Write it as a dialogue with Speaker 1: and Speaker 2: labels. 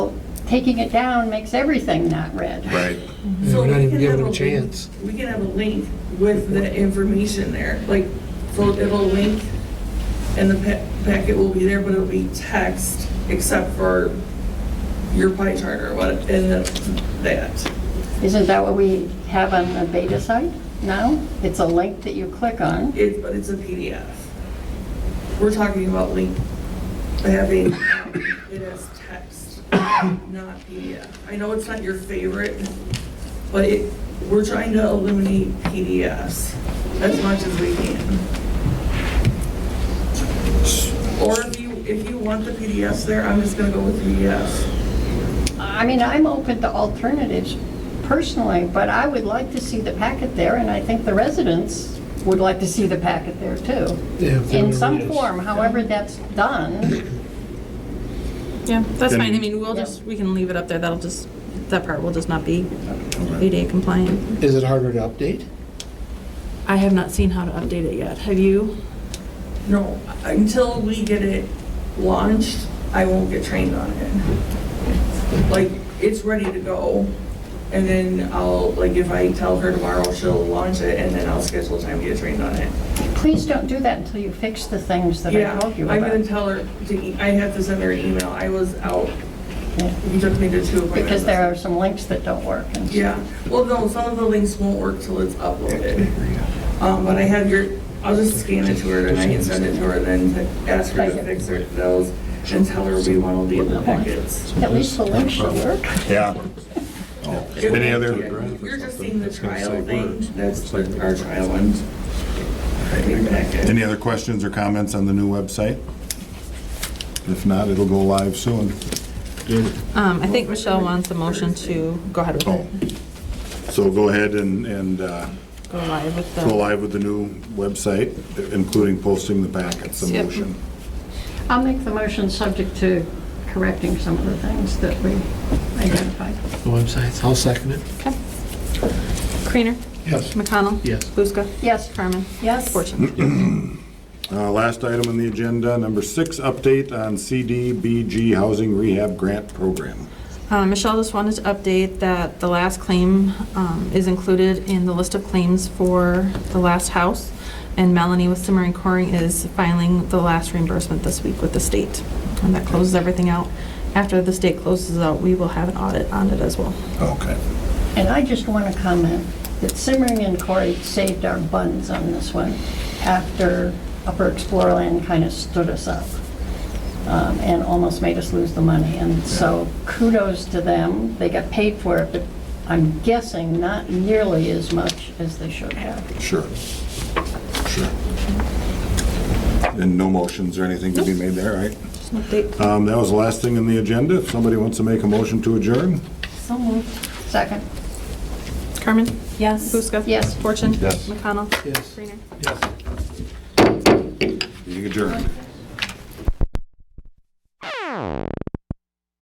Speaker 1: taking it down makes everything not red.
Speaker 2: right?
Speaker 3: Yeah,
Speaker 4: So
Speaker 3: we're not
Speaker 4: we
Speaker 3: even
Speaker 4: can
Speaker 3: giving
Speaker 4: have
Speaker 3: it a
Speaker 4: link-
Speaker 3: chance.
Speaker 4: We can have a link with the information there, like, so it'll link, and the pa- packet will be there, but it'll be text, except for your pie chart or what, and that's that.
Speaker 1: Isn't that what we have on the beta site now? It's a link that you click on.
Speaker 4: It's, but it's a PDF. We're talking about link, having, um, it as text, not PDF. I know it's not your favorite, but it, we're trying to eliminate PDFs as much as we can. Or if you, if you want the PDFs there, I'm just gonna go with PDFs.
Speaker 1: I mean, I'm open to alternatives personally, but I would like to see the packet there, and I think the residents would like to see the packet there too.
Speaker 3: Yeah, if they
Speaker 1: In
Speaker 3: wanna
Speaker 1: some
Speaker 3: read us.
Speaker 1: form, however that's done,
Speaker 5: Yeah, that's
Speaker 2: Then-
Speaker 5: fine. I mean, we'll just, we can leave it up there. That'll just, that part will just not be ADA compliant.
Speaker 3: Is it harder to update?
Speaker 5: I have not seen how to update it yet. Have you?
Speaker 4: No, until we get it launched, I won't get trained on it. Like, it's ready to go, and then I'll, like, if I tell her tomorrow, she'll launch it, and then I'll schedule time to get trained on it.
Speaker 1: please don't do that until you fix the things that I
Speaker 4: Yeah,
Speaker 1: told you
Speaker 4: I'm gonna
Speaker 1: about.
Speaker 4: tell her, to e- I have to send her an email, I was out,
Speaker 1: Yeah.
Speaker 4: you took me to two appointments.
Speaker 1: Because there are some links that don't work. and so-
Speaker 4: Yeah, well, no, some of the links won't work till it's uploaded. Um, but I have your, I'll just scan it to her tonight and send it to her, then to ask her to fix her those, and tell her we want to leave the packets.
Speaker 1: At least the links should work.
Speaker 2: Yeah. Any other,
Speaker 4: You're just seeing the trial thing, that's the- our trial one. Big packet.
Speaker 2: any other questions or comments on the new website? If not, it'll go live soon.
Speaker 5: Um, I think Michelle wants the motion to go ahead with
Speaker 2: Oh,
Speaker 5: it.
Speaker 2: so go ahead and, and uh,
Speaker 5: Go live with
Speaker 2: go
Speaker 5: the,
Speaker 2: live with the new website, including posting the packets, a
Speaker 5: Yep.
Speaker 2: motion.
Speaker 1: I'll make the motion subject to correcting some of the things that we identified.
Speaker 3: The websites, I'll second it.
Speaker 5: okay. Creener,
Speaker 3: Yes.
Speaker 5: McConnell.
Speaker 3: Yes.
Speaker 5: Buska.
Speaker 1: Yes.
Speaker 5: Carmen.
Speaker 1: Yes.
Speaker 5: Fortune.
Speaker 2: Uh, Last item on the agenda, number six, update on CDBG Housing Rehab Grant Program.
Speaker 5: Uh, Michelle just wanted to update that the last claim um, is included in the list of claims for the last house. And Melanie with Simmer and Coring is filing the last reimbursement this week with the state. And that closes everything out. After the state closes out, we will have an audit on it as well.
Speaker 2: Okay.
Speaker 1: And I just want to comment that Simmering and Corey saved our buns on this one after Upper Explorerland kind of stood us up um, and almost made us lose the money. And so kudos to them. They got paid for it, but I'm guessing not nearly as much as they should have.
Speaker 2: Sure. Sure. And no motions or anything to be made there, right?
Speaker 5: Just an update.
Speaker 2: Um, That was the last thing in the agenda. If somebody wants to make a motion to adjourn?
Speaker 1: So moved. Second.
Speaker 5: Carmen? Yes. Buska?
Speaker 1: Yes.
Speaker 5: Fortune?
Speaker 2: Yes.
Speaker 5: McConnell?
Speaker 3: Yes.
Speaker 5: Greener?
Speaker 2: Being adjourned.